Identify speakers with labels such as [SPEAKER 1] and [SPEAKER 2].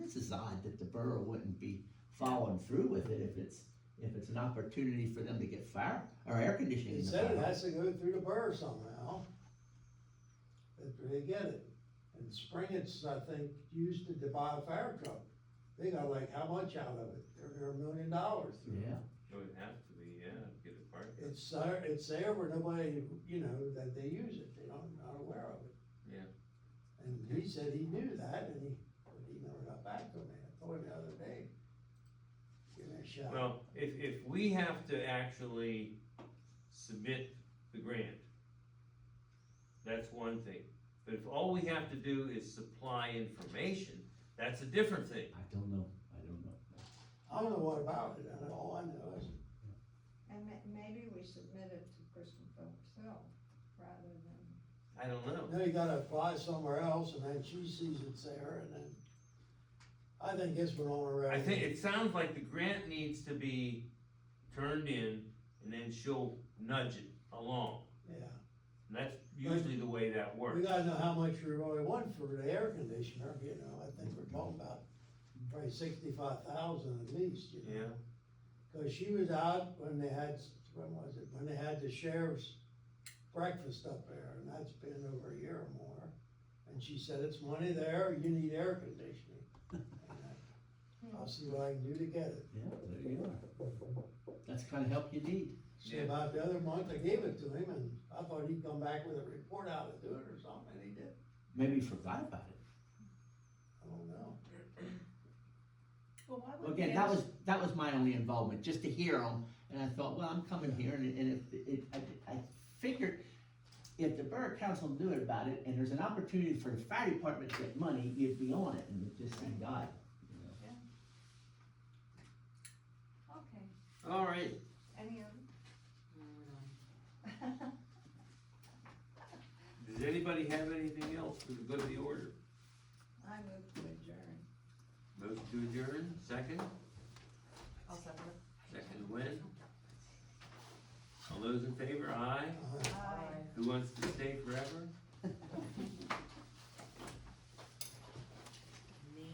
[SPEAKER 1] odd that the borough wouldn't be following through with it if it's, if it's an opportunity for them to get fire or air conditioning
[SPEAKER 2] He
[SPEAKER 1] in the
[SPEAKER 2] said it
[SPEAKER 1] borough.
[SPEAKER 2] has to go through the burr somehow. But they get it. And spring it's, I think, used to buy a fire truck. They got like, how much out of it? They're, they're a million dollars.
[SPEAKER 1] Yeah,
[SPEAKER 3] It would have to be, yeah, to get a park.
[SPEAKER 2] It's there, it's there, but nobody, you know, that they use it, they don't, not aware of it.
[SPEAKER 3] Yeah.
[SPEAKER 2] And he said he knew that, and he, but he never got back to me, I told him the other day. Give me a shot.
[SPEAKER 3] Well, if, if we have to actually submit the grant, that's one thing. But if all we have to do is supply information, that's a different thing.
[SPEAKER 1] I don't know, I don't know.
[SPEAKER 2] I don't know what about it, and all I know is,
[SPEAKER 4] And ma- maybe we submit it to Kristen Phillips Hill rather than,
[SPEAKER 3] I don't know.
[SPEAKER 2] now you gotta apply somewhere else, and then she sees it's there, and then. I think this went on already.
[SPEAKER 3] I think, it sounds like the grant needs to be turned in and then she'll nudge it along.
[SPEAKER 2] Yeah,
[SPEAKER 3] And that's usually the way that
[SPEAKER 2] we
[SPEAKER 3] works.
[SPEAKER 2] gotta know how much we really want for the air conditioner, you know, I think we're talking about probably sixty-five thousand at least, you know?
[SPEAKER 3] Yeah,
[SPEAKER 2] Cause she was out when they had, when was it, when they had the sheriff's breakfast up there, and that's been over a year or more. And she said, it's money there, you need air conditioning. And I'll see what I can do to get it.
[SPEAKER 1] Yeah, there you are. That's the kind of help you need.
[SPEAKER 2] So
[SPEAKER 3] Yeah.
[SPEAKER 2] about the other month, I gave it to him, and I thought he'd come back with a report how to do it or something, and he did,
[SPEAKER 1] Maybe you forgot about it.
[SPEAKER 2] I don't know.
[SPEAKER 4] well, why
[SPEAKER 1] Well,
[SPEAKER 4] would
[SPEAKER 1] Again, that was, that was my only involvement, just to hear them, and I thought, well, I'm coming here, and, and if, it, I, I figured if the borough council knew about it, and there's an opportunity for the fire department to get money, you'd be on it, and it just seemed odd.
[SPEAKER 4] Okay,
[SPEAKER 1] All right,
[SPEAKER 4] any other?
[SPEAKER 3] does anybody have anything else for the good of the order?
[SPEAKER 4] I move to adjourn.
[SPEAKER 3] Move to adjourn, second?
[SPEAKER 5] I'll second it.
[SPEAKER 3] Second win. All those in favor, aye.
[SPEAKER 2] Uh,
[SPEAKER 4] Aye.
[SPEAKER 3] Who wants to stay forever?